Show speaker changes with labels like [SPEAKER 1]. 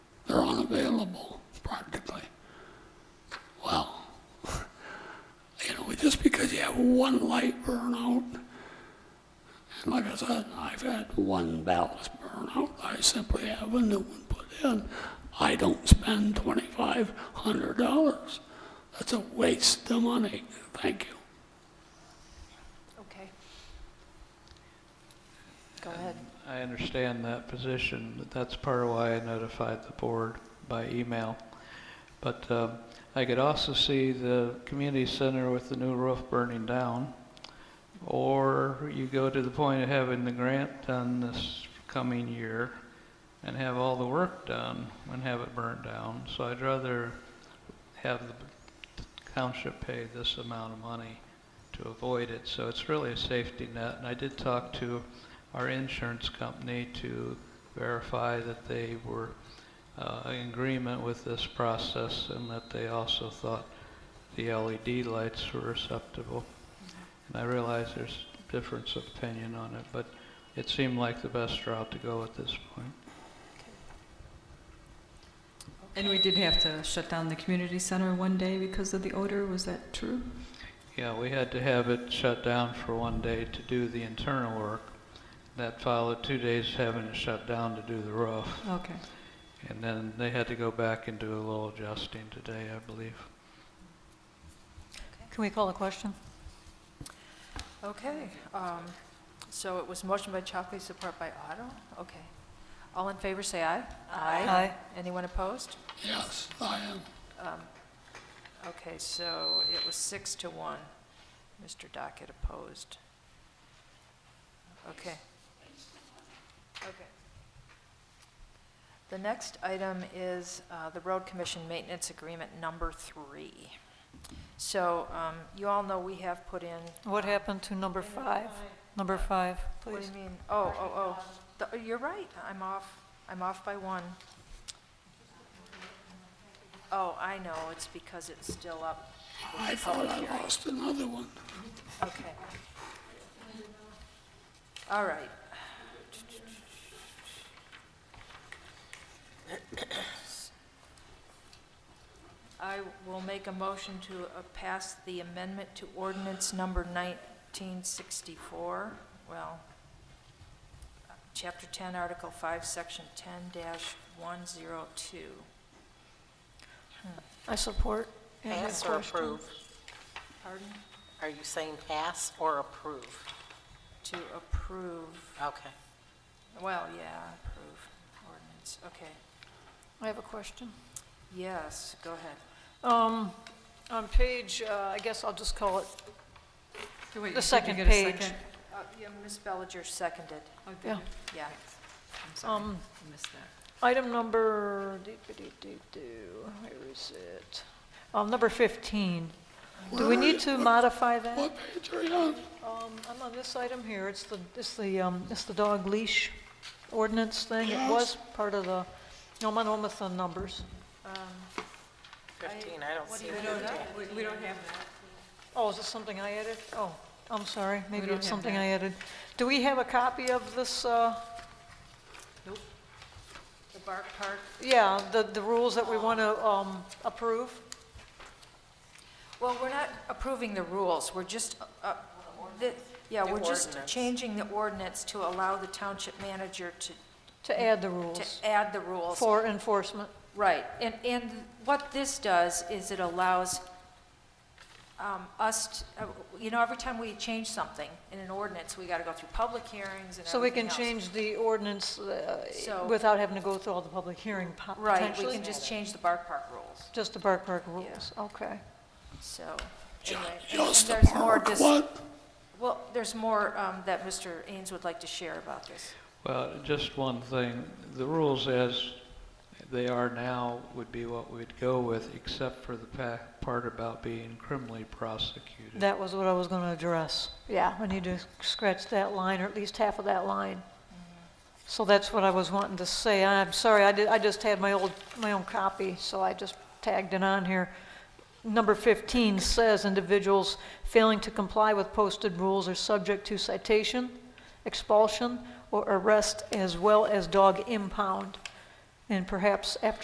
[SPEAKER 1] were unavailable practically. Well, you know, just because you have one light burn out, and like I said, I've had one ballast burn out, I simply have a new one put in. I don't spend twenty-five hundred dollars. That's a waste of money. Thank you.
[SPEAKER 2] Okay. Go ahead.
[SPEAKER 3] I understand that position, but that's part of why I notified the board by email. But um, I could also see the community center with the new roof burning down, or you go to the point of having the grant done this coming year and have all the work done and have it burned down. So I'd rather have the township pay this amount of money to avoid it. So it's really a safety net, and I did talk to our insurance company to verify that they were uh, in agreement with this process and that they also thought the LED lights were acceptable. And I realize there's difference of opinion on it, but it seemed like the best route to go at this point.
[SPEAKER 4] And we did have to shut down the community center one day because of the odor, was that true?
[SPEAKER 3] Yeah, we had to have it shut down for one day to do the internal work. That followed two days having it shut down to do the roof.
[SPEAKER 4] Okay.
[SPEAKER 3] And then they had to go back and do a little adjusting today, I believe.
[SPEAKER 5] Can we call a question?
[SPEAKER 2] Okay, um, so it was motion by Chockley, support by Otto? Okay. All in favor, say aye.
[SPEAKER 5] Aye.
[SPEAKER 2] Anyone opposed?
[SPEAKER 1] Yes, I am.
[SPEAKER 2] Okay, so it was six to one. Mr. Dockett opposed. Okay. Okay. The next item is uh, the Road Commission Maintenance Agreement Number Three. So um, you all know we have put in
[SPEAKER 5] What happened to number five? Number five,
[SPEAKER 2] What do
[SPEAKER 5] please.
[SPEAKER 2] you mean? Oh, oh, oh. The- You're right, I'm off, I'm off by one. Oh, I know, it's because it's still up.
[SPEAKER 1] I thought I lost another one.
[SPEAKER 2] Okay. All right. I will make a motion to uh, pass the amendment to ordinance number 1964, well, uh, Chapter 10, Article 5, Section 10-102.
[SPEAKER 5] I support. Any
[SPEAKER 6] Pass or
[SPEAKER 5] question?
[SPEAKER 6] approve?
[SPEAKER 2] Pardon?
[SPEAKER 6] Are you saying pass or approve?
[SPEAKER 2] To approve
[SPEAKER 6] Okay.
[SPEAKER 2] Well, yeah, approve ordinance, okay.
[SPEAKER 5] I have a question.
[SPEAKER 2] Yes, go ahead.
[SPEAKER 5] Um, on page, uh, I guess I'll just call it,
[SPEAKER 4] So wait, did
[SPEAKER 5] The
[SPEAKER 4] you
[SPEAKER 5] second
[SPEAKER 4] get a
[SPEAKER 5] page.
[SPEAKER 4] second?
[SPEAKER 2] Uh, Yeah, Ms. Bellinger seconded,
[SPEAKER 4] Oh, did
[SPEAKER 5] Yeah.
[SPEAKER 4] you?
[SPEAKER 2] yeah.
[SPEAKER 4] I'm sorry,
[SPEAKER 5] um,
[SPEAKER 4] I missed that.
[SPEAKER 5] item number, doo-ba-doo-doo-doo, where is it? Um, number 15. Do we need to modify that?
[SPEAKER 1] What page are you on?
[SPEAKER 5] Um, I'm on this item here, it's the, it's the, um, it's the dog leash ordinance thing. It was part of the, no, I'm on almost on numbers.
[SPEAKER 6] 15, I don't see
[SPEAKER 4] We
[SPEAKER 6] 15.
[SPEAKER 4] don't, we- we don't have that.
[SPEAKER 5] Oh, is this something I added? Oh, I'm sorry, maybe
[SPEAKER 4] don't
[SPEAKER 5] it's
[SPEAKER 4] have
[SPEAKER 5] something
[SPEAKER 4] that.
[SPEAKER 5] I added. Do we have a copy of this, uh,
[SPEAKER 2] The Bark Park?
[SPEAKER 5] yeah, the, the rules that we want to, um, approve?
[SPEAKER 2] Well, we're not approving the rules, we're just, uh, the- yeah,
[SPEAKER 6] The
[SPEAKER 2] we're just
[SPEAKER 6] ordinance.
[SPEAKER 2] changing the ordinance to allow the township manager to,
[SPEAKER 5] To add the rules
[SPEAKER 2] Mm-hmm. to add the rules.
[SPEAKER 5] for enforcement?
[SPEAKER 2] Right, and, and what this does is it allows um, us, t- uh, you know, every time we change something in an ordinance, we got to go through public hearings and
[SPEAKER 5] So we
[SPEAKER 2] everything
[SPEAKER 5] can
[SPEAKER 2] else.
[SPEAKER 5] change the ordinance, uh,
[SPEAKER 2] So-
[SPEAKER 5] without having to go through all the public hearing po-
[SPEAKER 2] Right,
[SPEAKER 5] potentially?
[SPEAKER 2] we can just change the Bark Park rules,
[SPEAKER 5] Just the Bark Park rules, okay.
[SPEAKER 2] so.
[SPEAKER 1] Ju-
[SPEAKER 2] anyway, and
[SPEAKER 1] Just the
[SPEAKER 2] there's more
[SPEAKER 1] park,
[SPEAKER 2] dis-
[SPEAKER 1] what?
[SPEAKER 2] Well, there's more um, that Mr. Ains would like to share about this.
[SPEAKER 3] Well, just one thing, the rules as they are now would be what we'd go with, except for the pa- part about being criminally prosecuted.
[SPEAKER 5] That was what I was going to address. Yeah, I need to scratch that line, or at least half of that line. So that's what I was wanting to say. I'm sorry, I did, I just had my old, my own copy, so I just tagged it on here. Number 15 says individuals failing to comply with posted rules are subject to citation, expulsion, or arrest, as well as dog impound. And perhaps after